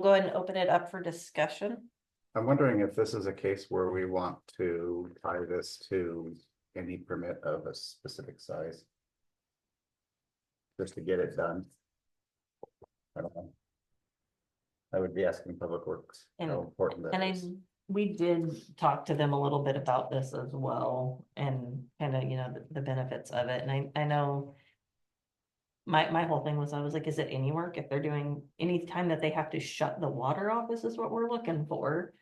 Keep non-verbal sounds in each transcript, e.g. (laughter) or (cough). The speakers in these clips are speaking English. go ahead and open it up for discussion. I'm wondering if this is a case where we want to tie this to any permit of a specific size. Just to get it done. I don't know. I would be asking Public Works And- how important And that I, is. we did talk to them a little bit about this as well and kind of, you know, the- the benefits of it. And I, I know. My, my whole thing was, I was like, is it any work if they're doing, any time that they have to shut the water off, this is what we're looking for.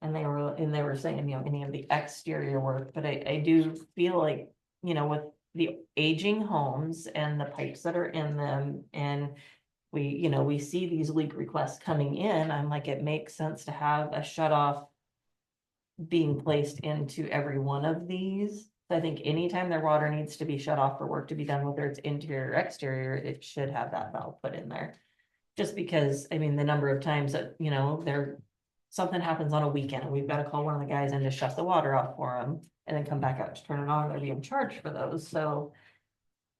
And they were, and they were saying, you know, any of the exterior work, but I, I do feel like, you know, with the aging homes and the pipes that are in them and we, you know, we see these leak requests coming in, I'm like, it makes sense to have a shut off being placed into every one of these. So I think anytime their water needs to be shut off for work to be done, whether it's interior or exterior, it should have that valve put in there. Just because, I mean, the number of times that, you know, there, something happens on a weekend and we've got to call one of the guys in to shut the water off for them and then come back out to turn it on, they're being charged for those, so.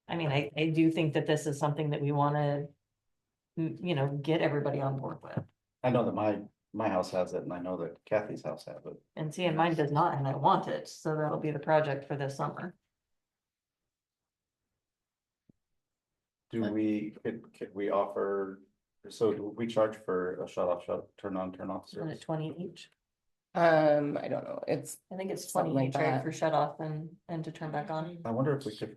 I mean, I, I do think that this is something that we want to m- you know, get everybody on board with. I know that my, my house has it and I know that Kathy's house has it. And see, and mine does not, and I want it, so that'll be the project for this summer. Do we, could, could we offer, so do we charge for a shut off, shut, turn on, turn off Isn't it service? twenty each? Um, I don't know, it's, I think it's Something twenty like each, right, that. for shut off and, and to turn back on. I wonder if we could,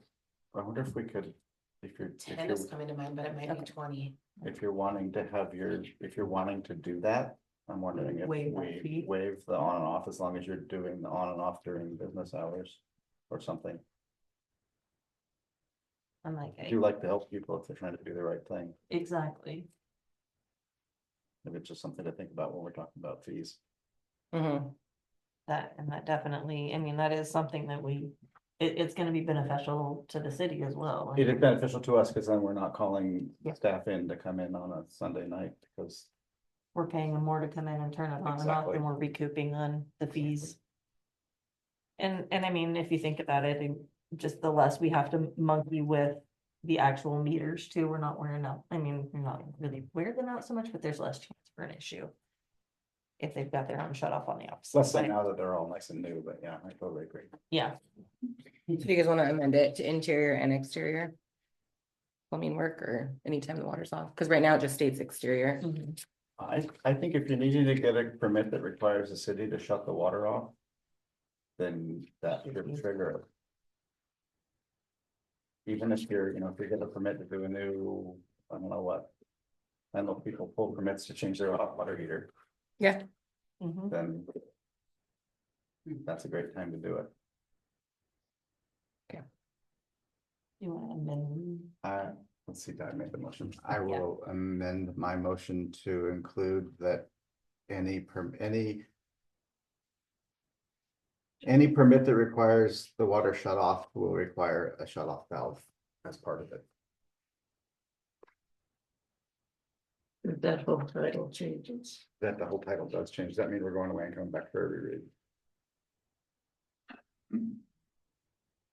I wonder if we could, if you're, if Ten is you're, coming to mind, but it might Okay. be twenty. if you're wanting to have your, if you're wanting to do that. I'm wondering if Waive that we fee? waive the on and off as long as you're doing the on and off during business hours or something. I'm like, I eh, do like to help people if they're trying to do the right thing. exactly. If it's just something to think about when we're talking about fees. mhm, That, and that definitely, I mean, that is something that we, it, it's gonna be beneficial to the city as well. It is beneficial to us because then we're not calling Yeah. staff in to come in on a Sunday night because We're paying them more to come in and turn it on and off, Exactly. and we're recouping on the fees. And, and I mean, if you think about it, and just the less we have to monkey with the actual meters too, we're not wearing out, I mean, we're not really wearing them out so much, but there's less chance for an issue. If they've got their own shut off on the it's opposite less than side, now that they're all nice and new, but yeah, I totally agree. yeah, do you guys wanna amend it to interior and exterior? Plumbing work or anytime the water's off, cause right now it just states exterior, Mhm. I, I think if you're needing to get a permit that requires the city to shut the water off, then that should trigger it. Even if you're, you know, if you get a permit to do a new, I don't know what. I know people pull permits to change their hot water heater, Mhm. then that's a great time to do it. You wanna amend? Uh, let's see, did I make the motion? I will amend my motion to include that any perm, any. Any permit that requires the water shut off will require a shut off valve as part of it. That whole title changes. That the whole title does change. Does that mean we're going away and coming back for every read?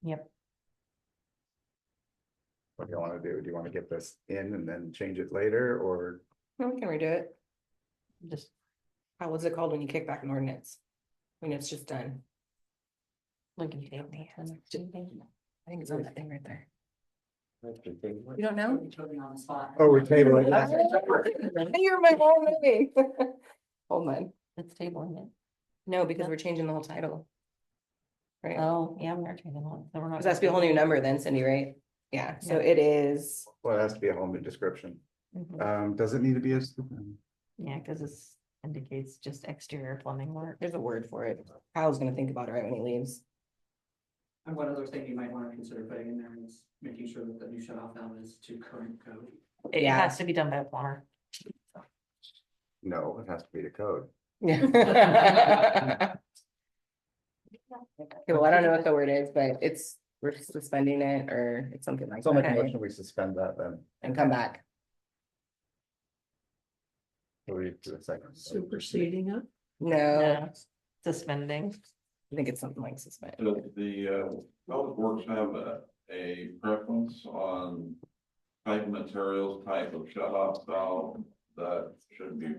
Yep. What do you wanna do? Do you wanna get this in and then change it later or? no, we can redo it, just, how was it called when you kick back an ordinance? When it's just done, we can table that then. I think it's on that thing right there, you don't know? on the spot. Oh, we're tabling (laughs) You're my whole movie. (laughs) Hold on, It's tabling no, because we're changing the whole title. it, Right, oh, yeah, we're tabling, it, so we're not. cause that's be a whole new number then Cindy, right? Yeah, so it is, Well, it has to be a whole new description. Mhm. Um, does it need to be a? Yeah, cause it's indicates just exterior plumbing work. there's a word for it, Kyle's gonna think about it right when he leaves. And one other thing you might wanna consider putting in there is making sure that the new shut off valve is to current code. It Yeah. has to be done by a plumber. No, it has to be the code. Okay, well, I don't know what the word is, but it's, we're suspending it or it's something like So I'll make a that motion, we suspend that then. and come back. So we do a second. Superseding it. No, No, Suspending. I think it's something like suspend. Does the, uh, Public Works have a, a preference on type of materials, type of shut off valve that should be